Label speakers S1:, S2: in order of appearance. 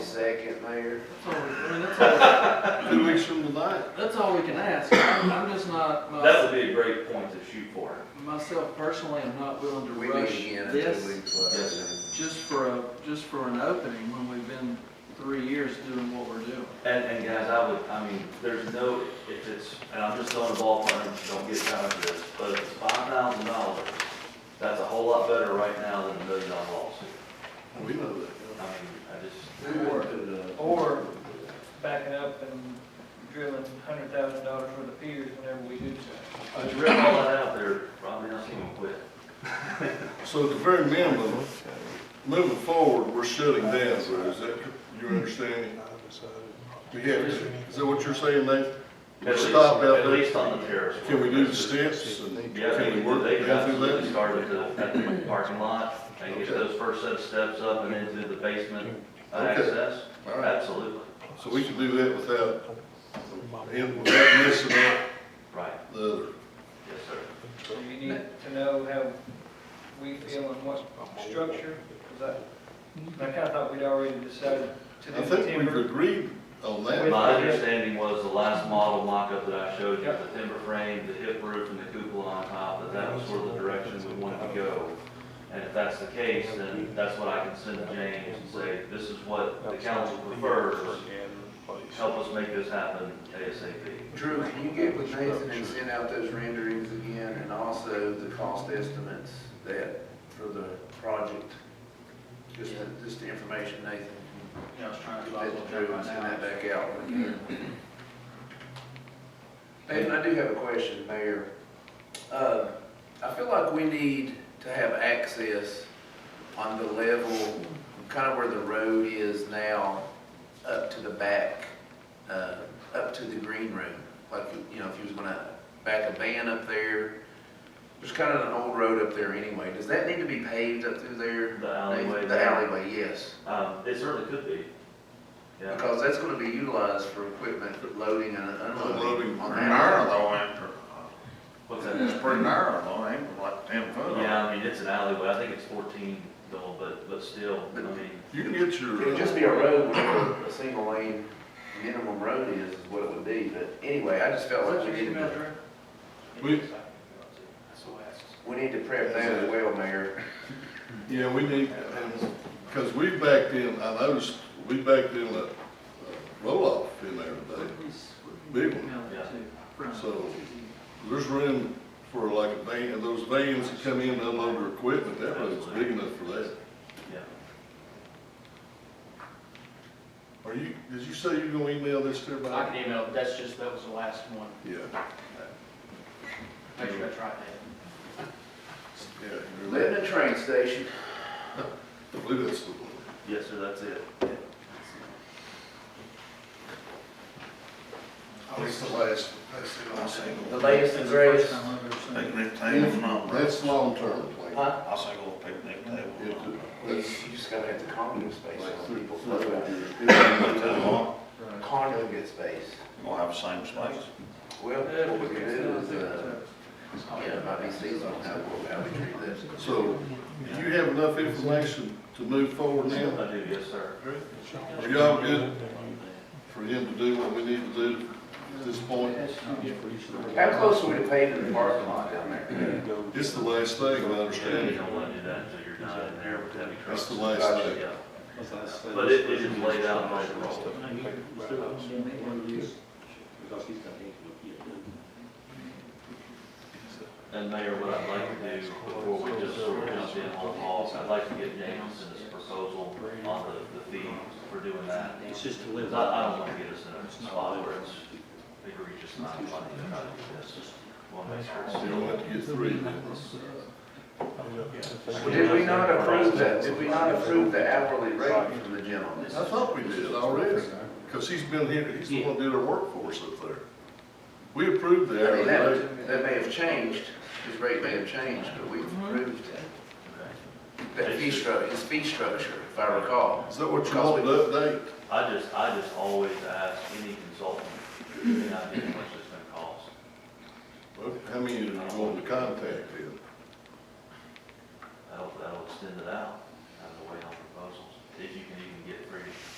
S1: Second, Mayor.
S2: That's all, we- I mean, that's
S3: Two weeks from tonight.
S2: all, that's all we can ask. I'm, I'm just not,
S4: That
S2: my-
S4: would be a great point to shoot for.
S2: myself personally, I'm not willing to
S1: We meet
S2: rush
S1: again in two
S2: this
S1: weeks. uh, like I
S4: Yes, sir.
S1: said.
S2: just for a, just for an opening when we've been three years doing what we're doing.
S4: And, and guys, I would, I mean, there's no, if it's, and I'm just throwing a ball for him, don't get time for this, but if it's five thousand dollars, that's a whole lot better right now than a million dollar lawsuit.
S3: We know that.
S4: I mean, I just,
S5: Or backing up and drilling hundred thousand dollars worth of piers whenever we do so.
S4: I just read all that out there, Robbie, I seen him quit.
S3: So at the very minimum, moving forward, we're shutting down, though, is that, you understand? We have, to. is that what you're saying, Nate?
S4: At
S3: We'll
S4: least-
S3: stop out
S4: At
S3: there?
S4: least on the terrace.
S3: Can we do the steps and
S4: Yeah, they,
S3: can we work
S4: they
S3: down through
S4: absolutely
S3: that?
S4: started at the, at the parking lot, and get
S3: Okay.
S4: those first set of steps up and into the basement uh,
S3: Okay.
S4: access,
S3: All right,
S4: absolutely,
S3: so we can do that without, and without missing out
S4: right,
S3: the other.
S4: yes, sir.
S5: So you need to know how we feel and what structure, because I, I kind of thought we'd already decided to
S3: I
S5: do the
S3: think we've
S5: timber.
S3: agreed on that.
S4: My understanding was the last model mock-up that I showed you,
S5: Yep.
S4: the timber frame, the hip roof, and the cupola on top, that that was sort of the direction we wanted to go. And if that's the case, then that's what I can send to James and say, this is what the council prefers, help us make this happen ASAP.
S1: Drew, can you get with Nathan and send out those renderings again and also the cost estimates that, for the project? Just, the- just the information, Nathan.
S2: Yeah, I was trying
S1: Get that to Drew and send that back out. Nathan, I do have a question, Mayor. Uh, I feel like we need to have access on the level, kind of where the road is now, up to the back, uh, up to the green room. Like, you know, if you was gonna back a van up there, there's kind of an old road up there anyway. Does that need to be paved up through there?
S4: The alleyway
S1: The
S4: there.
S1: alleyway, yes.
S4: Um, it certainly could be. Yeah,
S1: Because that's gonna be utilized for equipment loading and unloading
S6: Loading
S1: on
S6: pretty
S1: that.
S6: narrow though, ain't
S4: what's
S6: it? It's
S4: that?
S6: pretty narrow though, ain't it? Like ten foot.
S4: Yeah, I mean, it's an alleyway, I think it's fourteen though, but, but still, I mean,
S3: You can get
S1: It would
S3: your,
S1: just be a road where a single lane minimum road is, is what it would be, but anyway, I just felt like we needed to,
S3: we,
S1: we need to prep that as well, Mayor.
S3: yeah, we need, because we backed in, I noticed, we backed in a roll-off in there today. Big one. So- There's room for like a van, those vans that come in and unload their equipment, that road's big enough for that.
S4: yeah.
S3: Are you, did you say you're gonna email this to
S7: I
S3: everybody?
S7: can email, that's just, that was the last one.
S3: Yeah,
S7: Make sure I try that.
S3: yeah. you're right.
S1: Living in a train station,
S3: I believe that's the one.
S4: Yes, sir, that's it.
S3: That's the last, that's the last
S1: the
S3: single.
S1: latest and greatest.
S6: Picnic table's not right.
S3: That's long-term plan.
S1: Huh?
S6: I say go picnic
S3: It- uh,
S6: table.
S1: You
S3: That's
S1: just gotta have the common space,
S3: like
S1: so
S3: three,
S1: people
S3: four,
S1: flow
S3: five
S1: out.
S3: years.
S1: Congregate space.
S6: Gonna have the same space.
S1: Well, what we can do is, uh, yeah, about these seasonal, how, we- how we treat this.
S3: So, do you have enough information to move forward now?
S4: I do, yes, sir.
S3: Are y'all good for him to do what we need to do at this point?
S1: How close are we to paving the parking lot down there?
S3: It's the last thing, I
S4: Yeah, You
S3: understand.
S4: don't want to do that until you're not in there with heavy trucks.
S3: That's the last thing.
S4: Yeah, but it, it is laid out by the roll. And Mayor, what I'd like to do before we just sort of jump in on all, I'd like to get Jameson's proposal on the, the fee for doing that.
S7: It's just to
S4: Because
S7: live.
S4: I, I don't want to get us in a spot where it's egregious not funding to try to do this. We'll make sure it's
S3: So you'll have to get three then.
S1: Well, Did we not approve that, did we not approve the hourly rate from the gentleman?
S3: I thought we did already, because he's been here, he's the one that did our workforce up there. We approved
S1: I mean,
S3: that, right?
S1: that, that may have changed, his rate may have changed, but we've approved
S4: still-
S1: that fee stru, his fee structure, if I recall.
S3: Is that what you want to update?
S4: I just, I just always ask any consultant, any idea how much it's gonna cost.
S3: Okay, How many are you going to contact then?
S4: That'll, that'll extend it out, out of the way on proposals, if you can even get